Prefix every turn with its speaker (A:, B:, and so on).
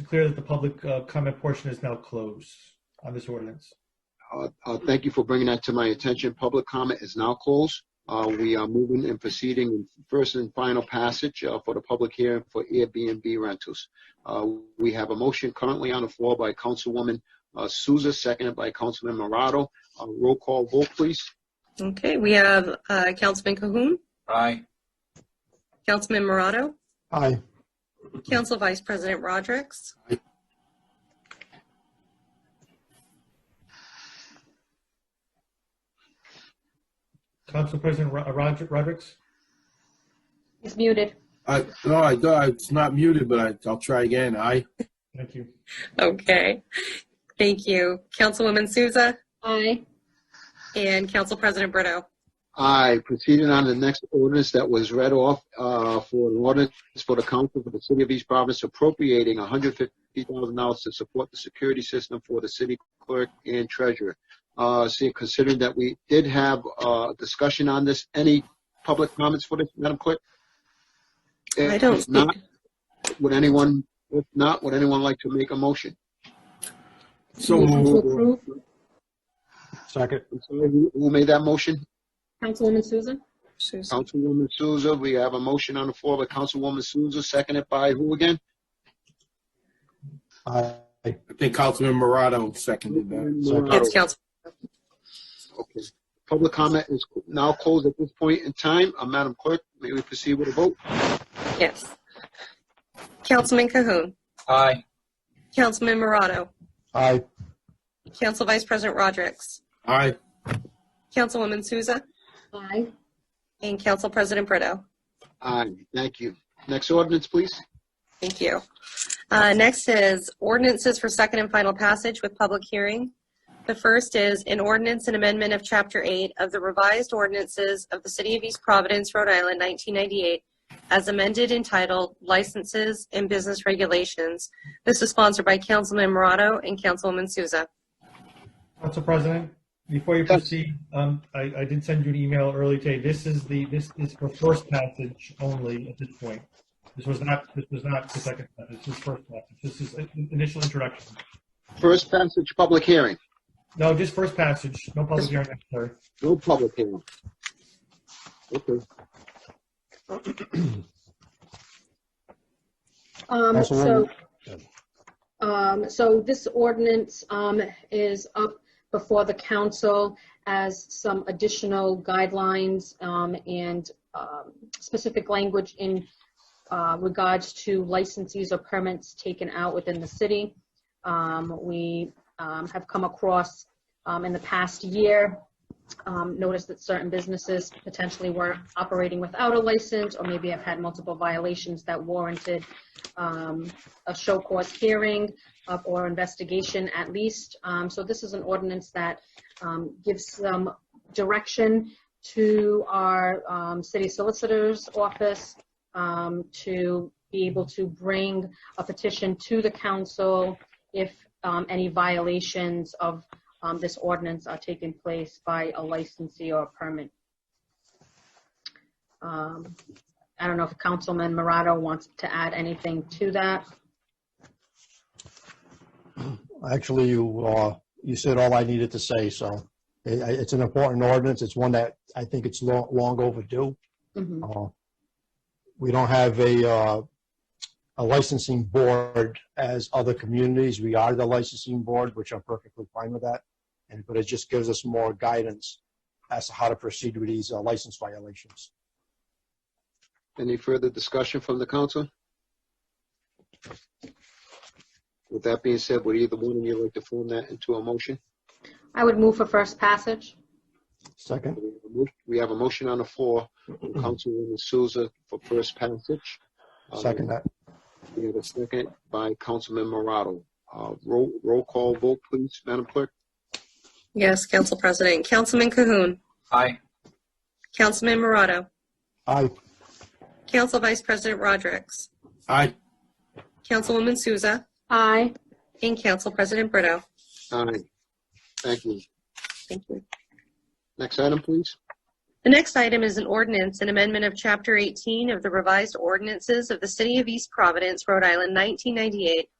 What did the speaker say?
A: declare that the public uh, comment portion is now closed on this ordinance.
B: Uh, uh, Thank you for bringing that to my attention. Public comment is now closed. Uh, We are moving and proceeding in first and final passage uh, for the public hearing for Airbnb rentals. Uh, We have a motion currently on the floor by Councilwoman uh, Souza, seconded by Councilman Morado. Uh, Roll call vote, please.
C: Okay, we have uh, Councilman Cahoon,
D: Aye.
C: Councilman Morado,
E: Aye.
C: Council Vice President Rodrick,
A: Council President Ro- uh, Rod- Rodrick's?
F: He's muted.
G: I, no, I, I- it's not muted, but I, I'll try again. Aye.
A: Thank you.
C: Okay, thank you. Councilwoman Souza
F: Aye.
C: and Council President Brito.
B: Aye. Proceeding on to the next ordinance that was read off uh, for an ordinance for the council for the city of East Providence appropriating $150,000 to support the security system for the city clerk and treasurer. Uh, See, considering that we did have uh, discussion on this, any public comments for this, Madam Clerk?
C: I don't
B: If not,
C: speak.
B: would anyone, if not, would anyone like to make a motion?
G: So
F: Motion to
G: moved.
F: approve.
E: Second.
B: I'm sorry, Who who made that motion?
F: Councilwoman Susan?
C: Souza.
B: Councilwoman Souza, we have a motion on the floor by Councilwoman Souza, seconded by who again?
E: Aye.
G: I think Councilman Morado seconded that.
C: It's Council.
B: Okay. Public comment is now closed at this point in time. Uh, Madam Clerk, may we proceed with a vote?
C: Yes. Councilman Cahoon,
D: Aye.
C: Councilman Morado,
E: Aye.
C: Council Vice President Rodrick,
G: Aye.
C: Councilwoman Souza,
F: Aye.
C: and Council President Brito.
B: Aye, thank you. Next ordinance, please.
C: Thank you. Uh, Next is ordinances for second and final passage with public hearing. The first is an ordinance and amendment of Chapter 8 of the revised ordinances of the City of East Providence, Rhode Island, 1998, as amended entitled Licenses and Business Regulations. This is sponsored by Councilman Morado and Councilwoman Souza.
A: Council President, before you
B: Yes.
A: proceed, um, I, I did send you an email early today. This is the, this is for first passage only at this point. This was not, this was not the second passage, this is first passage. This is in- initial introduction.
B: First passage, public hearing.
A: No, just first passage, no public hearing necessary.
B: No public hearing. Okay.
F: Um, so,
E: Councilwoman-
F: um, so this ordinance, um, is up before the council as some additional guidelines, um, and, um, specific language in, uh, regards to licensees or permits taken out within the city. Um, we, um, have come across, um, in the past year, um, noticed that certain businesses potentially were operating without a license or maybe have had multiple violations that warranted, um, a show cause hearing uh, or investigation at least. Um, So this is an ordinance that um, gives some direction to our um, city solicitor's office um, to be able to bring a petition to the council if um, any violations of um, this ordinance are taking place by a licensee or a permit. Um, I don't know if Councilman Morado wants to add anything to that.
E: Actually, you, uh, you said all I needed to say, so I- I- it's an important ordinance. It's one that I think it's lo- long overdue.
F: Mhm.
E: Uh, We don't have a, uh, a licensing board as other communities. We are the licensing board, which I'm perfectly fine with that. And, but it just gives us more guidance as to how to proceed with these uh, license violations.
B: Any further discussion from the council? With that being said, would either one of you like to form that into a motion?
F: I would move for first passage.
E: Second?
B: We have a mo- We have a motion on the floor from Councilwoman Souza for first passage. Um,
E: Second that.
B: We have a second by Councilman Morado. Uh, Roll roll call vote, please, Madam Clerk.
C: Yes, Council President. Councilman Cahoon,
D: Aye.
C: Councilman Morado,
E: Aye.
C: Council Vice President Rodrick,
G: Aye.
C: Councilwoman Souza,
F: Aye.
C: and Council President Brito.
B: Aye. Thank you.
C: Thank you.
B: Next item, please.
C: The next item is an ordinance, an amendment of Chapter 18 of the revised ordinances of the City of East Providence, Rhode Island, 1998,